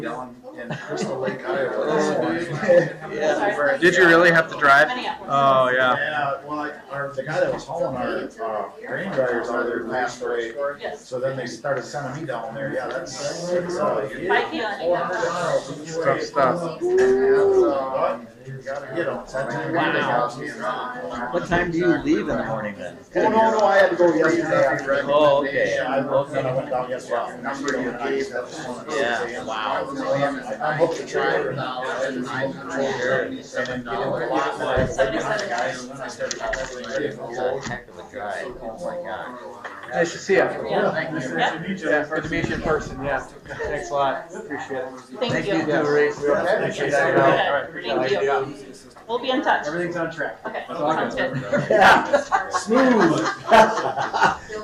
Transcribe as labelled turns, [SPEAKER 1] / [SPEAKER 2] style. [SPEAKER 1] down in Crystal Lake, Iowa.
[SPEAKER 2] Oh,
[SPEAKER 3] Yeah.
[SPEAKER 1] Where-
[SPEAKER 2] Did you really have to drive? Oh, yeah.
[SPEAKER 1] Yeah, well, I, our, the guy that was hauling our, uh, grain dryers out of there passed away,
[SPEAKER 3] Yes.
[SPEAKER 1] so then they started sending me down there, yeah, that's, that's, uh, you
[SPEAKER 3] I
[SPEAKER 1] get
[SPEAKER 3] can't.
[SPEAKER 1] four hundred miles each way.
[SPEAKER 2] Tough stuff.
[SPEAKER 1] And, uh, you gotta get 'em. That's the only way they got me.
[SPEAKER 4] What time do you leave in the morning then?
[SPEAKER 1] Oh, no, no, I had to go yesterday. afternoon.
[SPEAKER 4] Oh, okay.
[SPEAKER 1] Yeah, I looked and I went down
[SPEAKER 5] Wow.
[SPEAKER 1] yesterday. Number you gave, that was one of those
[SPEAKER 4] Yeah.
[SPEAKER 1] exams.
[SPEAKER 5] Wow.
[SPEAKER 1] I hooked the trailer now, and I controlled it, and then get in the lot, and I had to wait behind the guys, and then I started getting ready for the load.
[SPEAKER 5] Heck of a guy, oh
[SPEAKER 2] Nice to see you.
[SPEAKER 3] Yeah.
[SPEAKER 1] Nice to meet you.
[SPEAKER 2] Yeah, good to meet you in person, yeah. Thanks a lot, appreciate it.
[SPEAKER 3] Thank you.
[SPEAKER 2] Yeah, Reese.
[SPEAKER 1] Yeah.
[SPEAKER 2] Appreciate
[SPEAKER 1] Okay.
[SPEAKER 2] that. All right.
[SPEAKER 3] Thank you. We'll be in touch.
[SPEAKER 2] Everything's on track.
[SPEAKER 3] Okay.
[SPEAKER 2] That's all I
[SPEAKER 3] Sounds
[SPEAKER 2] can
[SPEAKER 3] good.
[SPEAKER 2] say.
[SPEAKER 1] Yeah. Smooth.